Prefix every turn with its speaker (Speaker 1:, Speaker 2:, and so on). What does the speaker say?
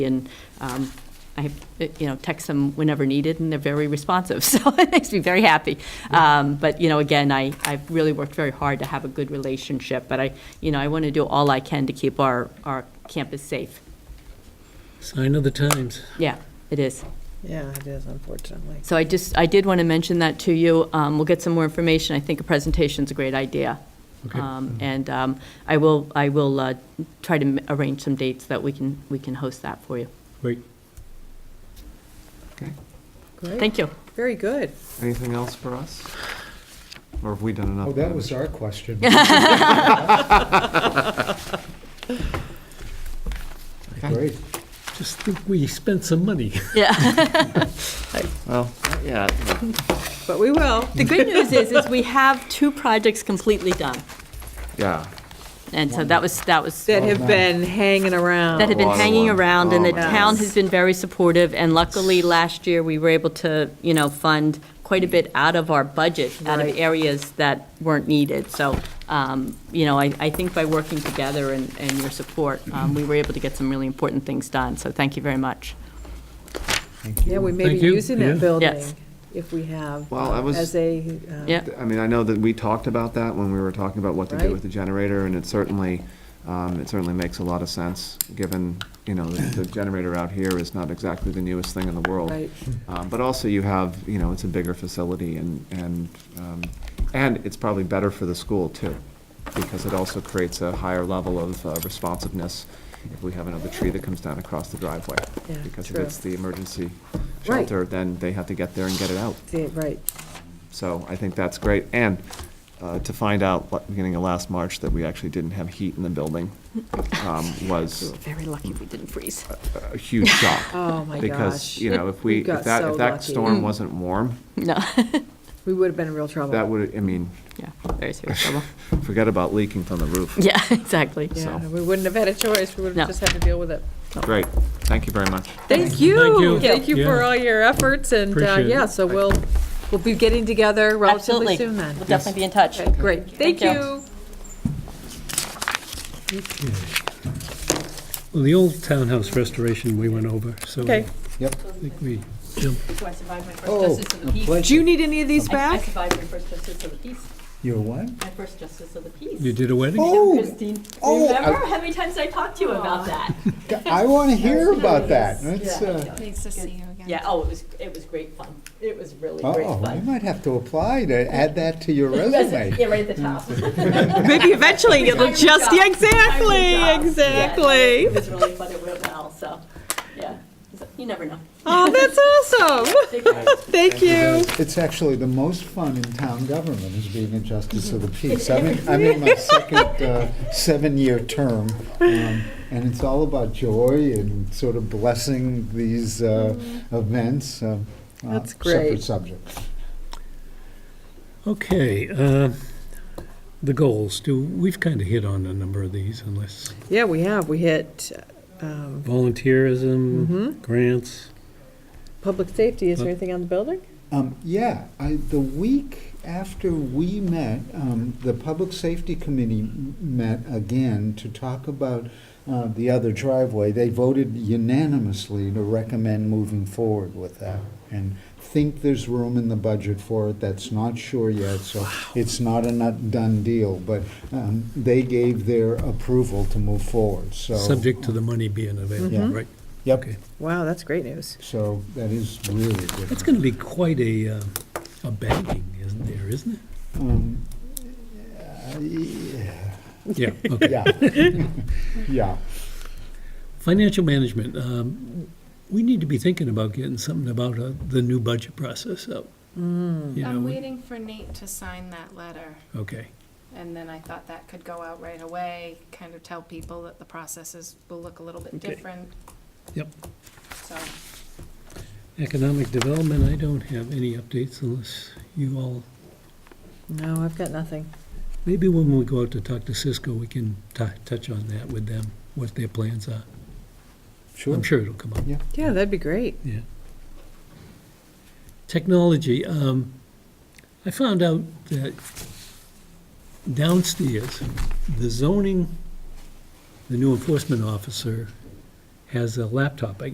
Speaker 1: and um, I, you know, text them whenever needed, and they're very responsive, so it makes me very happy. Um, But, you know, again, I, I've really worked very hard to have a good relationship, but I, you know, I want to do all I can to keep our, our campus safe.
Speaker 2: Sign of the times.
Speaker 1: Yeah, it is.
Speaker 3: Yeah, it is, unfortunately.
Speaker 1: So I just, I did want to mention that to you. Um, We'll get some more information. I think a presentation's a great idea.
Speaker 2: Okay.
Speaker 1: Um, And um, I will, I will uh, try to m- arrange some dates that we can, we can host that for you.
Speaker 2: Great.
Speaker 3: Great,
Speaker 1: Thank you.
Speaker 3: very good.
Speaker 4: Anything else for us? Or have we done enough?
Speaker 5: Oh, that was our question. Great.
Speaker 2: Just think we spent some money.
Speaker 1: Yeah.
Speaker 4: Well, yeah,
Speaker 3: But we will.
Speaker 1: The good news is, is we have two projects completely done,
Speaker 4: yeah.
Speaker 1: and so that was, that was,
Speaker 3: That
Speaker 1: that
Speaker 3: have been hanging around.
Speaker 1: had been
Speaker 4: Water
Speaker 1: hanging
Speaker 4: one.
Speaker 1: around, and the
Speaker 4: Oh, wow.
Speaker 1: town has been very supportive, and luckily, last year, we were able to, you know, fund quite a bit out of our budget, out of
Speaker 3: Right.
Speaker 1: areas that weren't needed, so, um, you know, I, I think by working together and, and your support, um, we were able to get some really important things done, so thank you very much.
Speaker 3: Yeah, we may be
Speaker 2: Thank you.
Speaker 3: using
Speaker 2: Yeah.
Speaker 3: that building
Speaker 1: Yes.
Speaker 3: if we have,
Speaker 4: Well, I
Speaker 3: uh,
Speaker 4: was-
Speaker 3: as a, um,
Speaker 1: Yeah.
Speaker 4: I mean, I know that we talked about that when we were talking about what to do
Speaker 3: Right.
Speaker 4: with the generator, and it certainly, um, it certainly makes a lot of sense, given, you know, the the generator out here is not exactly the newest thing in the world.
Speaker 3: right,
Speaker 4: Um, But also you have, you know, it's a bigger facility and, and, um, and it's probably better for the school too, because it also creates a higher level of uh, responsiveness if we have another tree that comes down across the driveway.
Speaker 3: Yeah,
Speaker 4: Because if
Speaker 3: true.
Speaker 4: it's the emergency
Speaker 3: Right.
Speaker 4: shelter, then they have to get there and get it out.
Speaker 3: the- right.
Speaker 4: So I think that's great. And uh, to find out, like, beginning of last March, that we actually didn't have heat in the building um, was
Speaker 1: Very lucky we didn't freeze.
Speaker 4: a huge shock.
Speaker 3: Oh, my
Speaker 4: Because,
Speaker 3: gosh.
Speaker 4: you know, if
Speaker 3: We
Speaker 4: we,
Speaker 3: got
Speaker 4: if that,
Speaker 3: so
Speaker 4: if that
Speaker 3: lucky. Mm.
Speaker 4: storm wasn't warm,
Speaker 1: No,
Speaker 3: We would have been in real
Speaker 4: That
Speaker 3: trouble.
Speaker 4: would, I mean,
Speaker 1: yeah, very serious trouble.
Speaker 4: forget about leaking from the roof.
Speaker 1: Yeah, exactly.
Speaker 3: Yeah,
Speaker 4: so.
Speaker 3: we wouldn't have had a choice, we would
Speaker 1: No.
Speaker 3: have just had to deal with it.
Speaker 4: Great, thank you very much.
Speaker 3: Thank you,
Speaker 2: you.
Speaker 3: thank you for
Speaker 2: Yeah.
Speaker 3: all your efforts, and, uh,
Speaker 2: Appreciate it.
Speaker 3: yeah, so we'll, we'll be getting together relatively
Speaker 1: Absolutely.
Speaker 3: soon then.
Speaker 1: We'll definitely be in touch.
Speaker 3: Okay, Great, thank
Speaker 1: you.
Speaker 3: you.
Speaker 2: Well, the old townhouse restoration we went over, so I
Speaker 3: Okay,
Speaker 5: Yep.
Speaker 2: think we jumped.
Speaker 1: So I survived my first
Speaker 5: Oh,
Speaker 1: Justice of
Speaker 5: a
Speaker 1: the Peace.
Speaker 3: do
Speaker 5: pleasure.
Speaker 3: you need any of these
Speaker 1: I
Speaker 3: back?
Speaker 1: survived my first Justice of the Peace.
Speaker 5: You're what?
Speaker 1: My first Justice of the
Speaker 2: You
Speaker 1: Peace.
Speaker 2: did a wedding?
Speaker 5: Oh,
Speaker 1: Christine,
Speaker 5: oh,
Speaker 1: remember how many times I talked to you about that?
Speaker 5: I want to hear about that. That's, uh,
Speaker 6: Nice to see you again.
Speaker 1: Yeah, oh, it was, it was great fun. It was really great
Speaker 5: oh, I
Speaker 1: fun.
Speaker 5: might have to apply to add that to your resume.
Speaker 1: Yeah, right at the top.
Speaker 3: Maybe eventually it'll
Speaker 1: Retirement
Speaker 3: just,
Speaker 1: job.
Speaker 3: yeah,
Speaker 1: Good job.
Speaker 3: exactly,
Speaker 1: Yeah, It
Speaker 3: exactly.
Speaker 1: was really fun, it went well, so, yeah. So, You never know.
Speaker 3: Oh, that's awesome. Thank you.
Speaker 5: It's actually the most fun in town government is being a justice of the
Speaker 3: Mm-hmm.
Speaker 5: peace. I'm in, I'm in my second uh, seven-year term, um, and it's all about joy and sort of blessing these uh, events. um, uh,
Speaker 3: Mm-hmm. That's great.
Speaker 5: Separate subject.
Speaker 2: Okay, uh, the goals, do, we've kind of hit on a number of these unless
Speaker 3: Yeah, we have, we hit, um,
Speaker 2: volunteerism, grants.
Speaker 3: public safety, is there anything on the building?
Speaker 5: Um, yeah, I, the week after we met, um, the Public Safety Committee m- met again to talk about uh, the other driveway. They voted unanimously to recommend moving forward with that and think there's room in the budget for it. That's not sure yet, so it's not a not done deal. But um, they gave their approval to move forward. So
Speaker 2: Subject to the money being available,
Speaker 5: Yeah.
Speaker 2: right?
Speaker 5: Yep.
Speaker 2: Okay.
Speaker 3: Wow, that's great news.
Speaker 5: So that is really good.
Speaker 2: That's going to be quite a, uh, a banging, isn't there, isn't
Speaker 5: Um, yeah.
Speaker 2: it? Yeah, okay.
Speaker 5: Yeah. Yeah.
Speaker 2: Financial management, um, we need to be thinking about getting something about uh, the new budget process out. You
Speaker 6: I'm
Speaker 2: know,
Speaker 6: waiting for Nate to sign that letter,
Speaker 2: okay.
Speaker 6: and then I thought that could go out right away, kind of tell people that the processes will look a little bit
Speaker 2: Okay.
Speaker 6: different.
Speaker 2: Yep.
Speaker 6: So,
Speaker 2: Economic development, I don't have any updates unless you all,
Speaker 3: No, I've got nothing.
Speaker 2: maybe when we go out to talk to Cisco, we can tou- touch on that with them, what their plans are. I'm sure it'll come up,
Speaker 3: Yeah, that'd be great.
Speaker 2: yeah. Technology, um, I found out that downstairs, the zoning, the new enforcement officer has a laptop, I